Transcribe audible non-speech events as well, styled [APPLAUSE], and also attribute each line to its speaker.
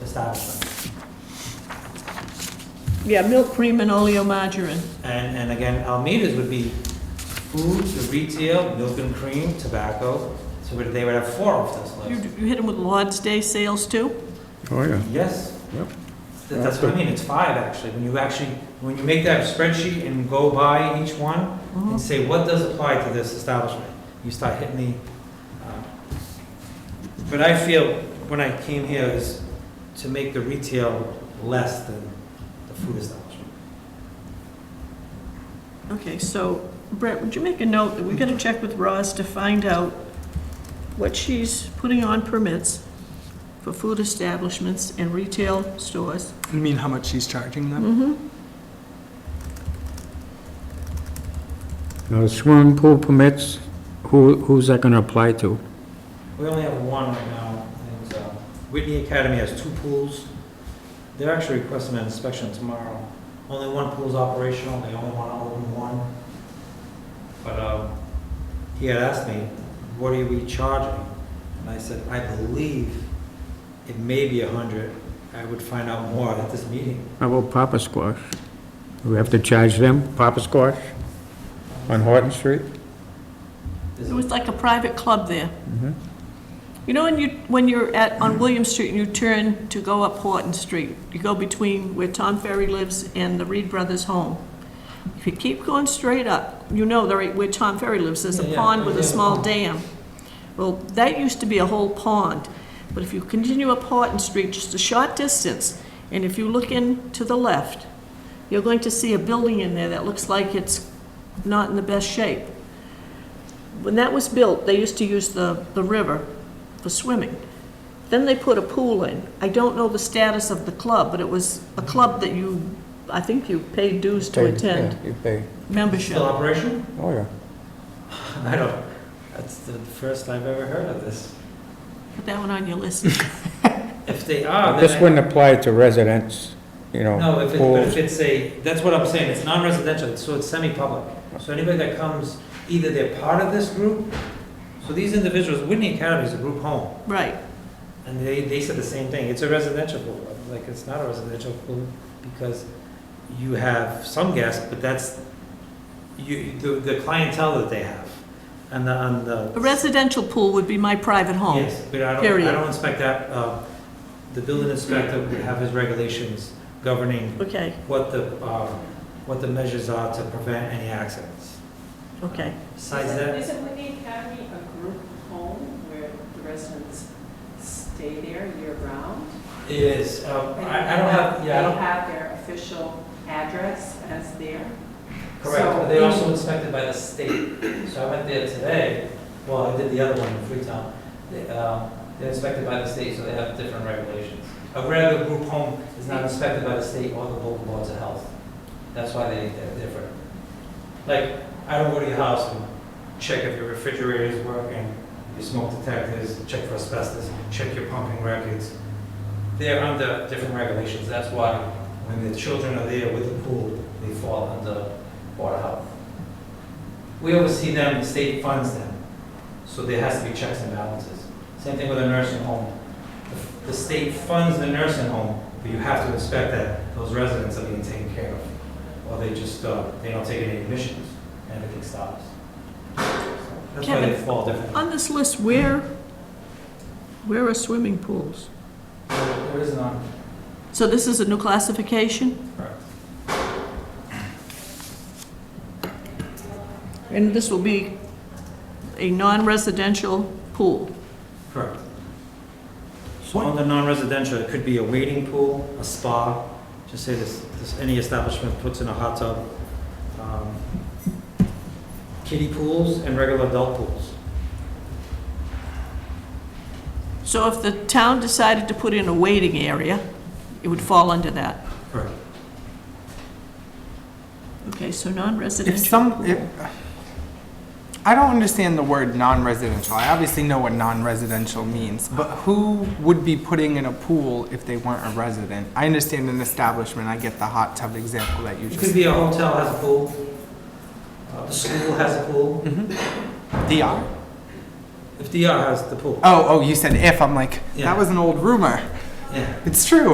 Speaker 1: establishment.
Speaker 2: Yeah, milk cream and oleomargarine.
Speaker 1: And, and again, Almeida's would be food, the retail, milk and cream, tobacco, so would- they would have four of this
Speaker 2: You,
Speaker 1: list.
Speaker 2: you hit them with Lord's Day sales too?
Speaker 3: Oh, yeah.
Speaker 1: Yes,
Speaker 3: Yep.
Speaker 1: That- that's what I mean, it's five actually, when you actually, when you make that spreadsheet and go by each one
Speaker 2: Mm-hmm.
Speaker 1: and say, what does apply to this establishment? You start hitting the, uh, but I feel, when I came here, is to make the retail less than the food establishment.
Speaker 2: Okay, so Brett, would you make a note that we gotta check with Roz to find out what she's putting on permits for food establishments and retail stores?
Speaker 4: You mean how much she's charging them?
Speaker 2: Mm-hmm.
Speaker 3: Now, swimming pool permits, who, who's that gonna apply to?
Speaker 1: We only have one right now. and, uh, Whitney Academy has two pools. They're actually requesting an inspection tomorrow. Only one pool's operational, they only want to open one. But um, he had asked me, what are we charging? And I said, I believe it may be a 100. I would find out more at this meeting.
Speaker 3: How about Papa Squash? Do we have to charge them, Papa Squash, on Horton Street?
Speaker 1: Is
Speaker 2: It
Speaker 1: it-
Speaker 2: was like a private club there.
Speaker 3: Mhm.
Speaker 2: You know, when you, when you're at, on William Street and you turn to go up Horton Street, you go between where Tom Ferry lives and the Reed Brothers' home. If you keep going straight up, you know the right where Tom Ferry lives, there's a
Speaker 1: Yeah, yeah,
Speaker 2: pond with
Speaker 1: yeah.
Speaker 2: a small dam. Well, that used to be a whole pond, but if you continue up Horton Street just a short distance, and if you look in to the left, you're going to see a building in there that looks like it's not in the best shape. When that was built, they used to use the, the river for swimming. Then they put a pool in. I don't know the status of the club, but it was a club that you, I think you paid dues to attend,
Speaker 3: You pay,
Speaker 2: membership.
Speaker 1: Still operation? [LAUGHS]
Speaker 3: oh, yeah.
Speaker 1: I don't, that's the first I've ever heard of this.
Speaker 2: Put that one on your list.
Speaker 1: If they are, Ah, then
Speaker 3: This
Speaker 1: I-
Speaker 3: wouldn't apply to residents, you
Speaker 1: No,
Speaker 3: know,
Speaker 1: if it, but
Speaker 3: pools.
Speaker 1: if it's a, that's what I'm saying, it's non-residential, so it's semi-public. So anybody that comes, either they're part of this group, so these individuals, Whitney Academy is a group home,
Speaker 2: Right.
Speaker 1: and they, they said the same thing, it's a residential pool. I'm Like, it's not a residential pool, because you have some guests, but that's, you, the, the clientele that they have, and the, and the.
Speaker 2: A residential pool would be my private home.
Speaker 1: Yes, but I don't, I
Speaker 2: Period.
Speaker 1: don't expect that, uh, the building inspector would have his regulations governing
Speaker 2: Okay,
Speaker 1: what the, uh, what the measures are to prevent any accidents.
Speaker 2: okay.
Speaker 1: Besides
Speaker 5: Isn't-
Speaker 1: that,
Speaker 5: Isn't Whitney Academy a group home where the residents stay there year-round?
Speaker 1: it is, um, I I don't have, yeah, I
Speaker 5: They
Speaker 1: don't,
Speaker 5: have their official address as their,
Speaker 1: correct,
Speaker 5: so-
Speaker 1: but they're also inspected by the state. So I went there today, well, I did the other one in Freetown. They, um, They're inspected by the state, so they have different regulations. A regular group home is not inspected by the state or the local boards of health. That's why they, they're different. Like, I don't go to your house and check if your refrigerator is working, your smoke detectors, check for asbestos, check your pumping records. They're under different regulations, that's why when the children are there with the pool, they fall under water health. We oversee them, the state funds them, so there has to be checks and balances. Same thing with a nursing home. The- The state funds the nursing home, but you have to inspect that those residents are being taken care of or they just, uh, they don't take any admissions, and everything stops. That's why they
Speaker 2: Kevin.
Speaker 1: fall differently.
Speaker 2: On this list, where, where are swimming pools?
Speaker 1: There is none.
Speaker 2: So this is a new classification,
Speaker 1: Correct.
Speaker 2: and this will be a non-residential pool.
Speaker 1: Correct. So on the non-residential, it could be a waiting pool, a spa, just say this, this, any establishment puts in a hot tub. um, Kiddie pools and regular adult pools.
Speaker 2: So if the town decided to put in a waiting area, it would fall under that.
Speaker 1: Correct.
Speaker 2: Okay, so
Speaker 4: If
Speaker 2: non-residential.
Speaker 4: some, if, I don't understand the word non-residential. I obviously know what non-residential means, but who would be putting in a pool if they weren't a resident? I understand an establishment. I get the hot tub example that you
Speaker 1: It
Speaker 4: just.
Speaker 1: could be a hotel has a pool, uh, the school has a pool,
Speaker 4: DR.
Speaker 1: if DR has the pool. Uh,
Speaker 4: Oh, oh, you said if. I'm like
Speaker 1: Yeah.
Speaker 4: that was an old rumor.
Speaker 1: Yeah.
Speaker 4: It's true.